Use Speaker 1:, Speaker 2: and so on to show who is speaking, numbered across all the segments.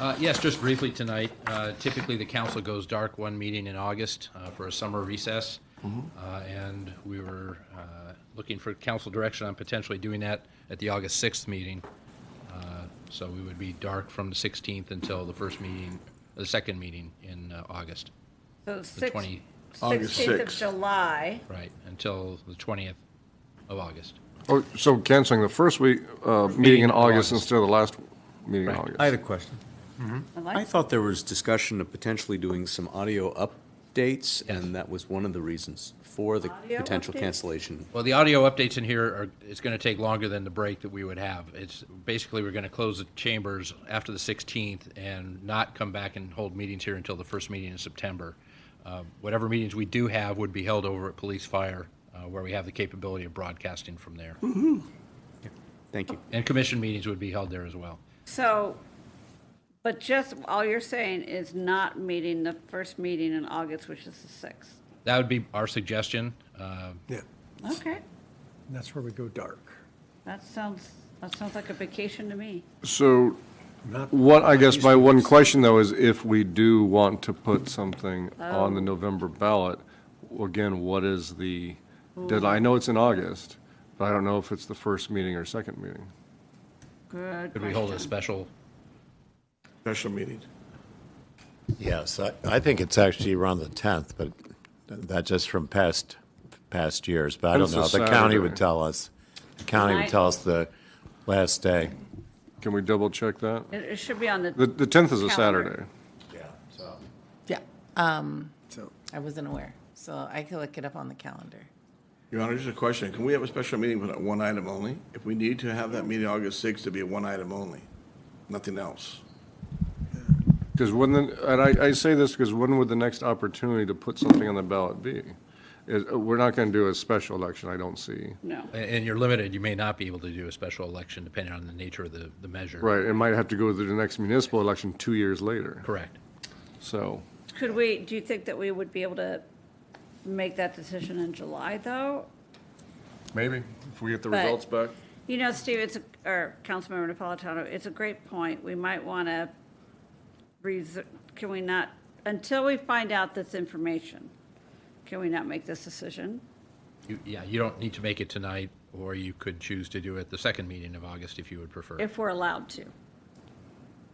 Speaker 1: Uh, Yes, just briefly tonight. Uh, Typically, the council goes dark one meeting in August uh, for a summer recess. Uh, And we were uh, looking for council direction on potentially doing that at the August 6th meeting. Uh, So we would be dark from the 16th until the first meeting, the second meeting in uh, August,
Speaker 2: So
Speaker 1: the
Speaker 2: six-
Speaker 1: 20,
Speaker 2: 16th of
Speaker 3: 6th.
Speaker 2: July,
Speaker 1: right, until the 20th of August.
Speaker 3: Oh, so canceling the first week, uh, meeting
Speaker 1: in
Speaker 3: in
Speaker 1: August.
Speaker 3: August instead of the last meeting in August.
Speaker 4: I had a question.
Speaker 2: I
Speaker 5: I
Speaker 2: like,
Speaker 5: thought there was discussion of potentially doing some audio updates, and that was one of the reasons for the
Speaker 2: Audio
Speaker 5: potential
Speaker 2: updates?
Speaker 5: cancellation.
Speaker 1: Well, the audio updates in here are, it's going to take longer than the break that we would have. It's, basically, we're going to close the chambers after the 16th and not come back and hold meetings here until the first meeting in September. Uh, Whatever meetings we do have would be held over at Police Fire, uh, where we have the capability of broadcasting from there.
Speaker 5: Thank you.
Speaker 1: And commission meetings would be held there as well.
Speaker 2: so, but just, all you're saying is not meeting the first meeting in August, which is the 6th.
Speaker 1: That would be our suggestion. Uh,
Speaker 6: Yeah,
Speaker 2: Okay,
Speaker 6: that's where we go dark.
Speaker 2: that sounds, that sounds like a vacation to me.
Speaker 3: So
Speaker 6: Not-
Speaker 3: what, I guess my one question though is if we do want to put something on the November ballot, again, what is the deadline? I know it's in August, but I don't know if it's the first meeting or second meeting.
Speaker 2: Good
Speaker 1: Could we hold a
Speaker 2: question.
Speaker 1: special?
Speaker 6: Special meeting.
Speaker 7: Yes, I, I think it's actually around the 10th, but that just from past, past years, but I don't
Speaker 3: It's a
Speaker 7: know. The county
Speaker 3: Saturday.
Speaker 7: would tell us. The county
Speaker 2: Right.
Speaker 7: would tell us the last day.
Speaker 3: Can we double check that?
Speaker 2: It it should be on
Speaker 3: The,
Speaker 2: the,
Speaker 3: the tenth is a
Speaker 2: Calendar.
Speaker 3: Saturday.
Speaker 7: Yeah, so.
Speaker 8: Yeah, um,
Speaker 6: So,
Speaker 8: I wasn't aware, so I can look it up on the calendar.
Speaker 9: Your Honor, just a question. Can we have a special meeting with one item only? If we need to have that meeting August 6th, to be a one item only, nothing else.
Speaker 3: Because when, the- and I, I say this because when would the next opportunity to put something on the ballot be? Is, we're not going to do a special election, I don't see.
Speaker 2: no.
Speaker 1: And- And you're limited, you may not be able to do a special election depending on the nature of the, the measure.
Speaker 3: Right, it might have to go to the next municipal election two years later.
Speaker 1: Correct.
Speaker 3: So,
Speaker 2: Could we, do you think that we would be able to make that decision in July, though?
Speaker 3: maybe, if we get the
Speaker 2: But-
Speaker 3: results back.
Speaker 2: You know, Steve, it's, a- or Councilmember Napolitano, it's a great point. We might want to, can we not, until we find out this information, can we not make this decision?
Speaker 1: You- Yeah, you don't need to make it tonight, or you could choose to do it the second meeting of August if you would prefer.
Speaker 2: If we're allowed to.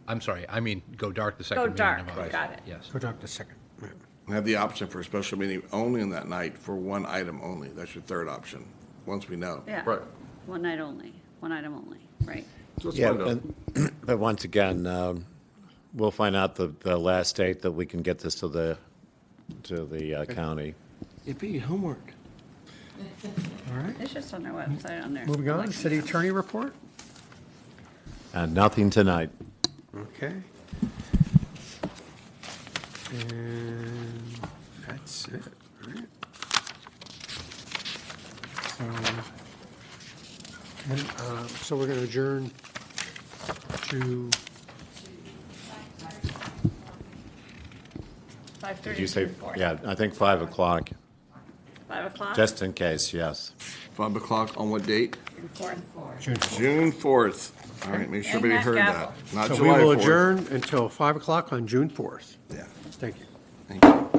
Speaker 1: I'm sorry, I mean, go dark the second
Speaker 2: Go
Speaker 1: meeting of
Speaker 2: dark,
Speaker 1: August.
Speaker 2: got it.
Speaker 1: Yes.
Speaker 4: Go talk to second.
Speaker 9: We Have the option for a special meeting only on that night for one item only. That's your third option, once we know.
Speaker 2: Yeah.
Speaker 3: Right.
Speaker 2: One night only, one item only, right?
Speaker 3: So let's
Speaker 7: Yeah,
Speaker 3: find out.
Speaker 7: but, but once again, um, we'll find out the, the last date that we can get this to the, to the uh, county.
Speaker 6: Yippee, homework. All right,
Speaker 2: It's just on our website on there.
Speaker 4: Moving on,
Speaker 2: Like-
Speaker 4: city attorney report?
Speaker 7: And nothing tonight.
Speaker 4: Okay. And that's it, right? So, when, Um, uh, So we're going to adjourn to,
Speaker 2: 5:30
Speaker 7: Did you say,
Speaker 2: to 4.
Speaker 7: yeah, I think 5 o'clock,
Speaker 2: 5 o'clock?
Speaker 7: just in case, yes.
Speaker 9: Five o'clock on what date?
Speaker 2: and four.
Speaker 9: June 4th. All right, make sure
Speaker 2: And
Speaker 9: everybody
Speaker 2: that
Speaker 9: heard that.
Speaker 2: gavel.
Speaker 9: Not
Speaker 4: so we
Speaker 9: July
Speaker 4: will
Speaker 9: 4th.
Speaker 4: adjourn until 5 o'clock on June 4th.
Speaker 9: Yeah,
Speaker 4: Thank you.
Speaker 9: thank you.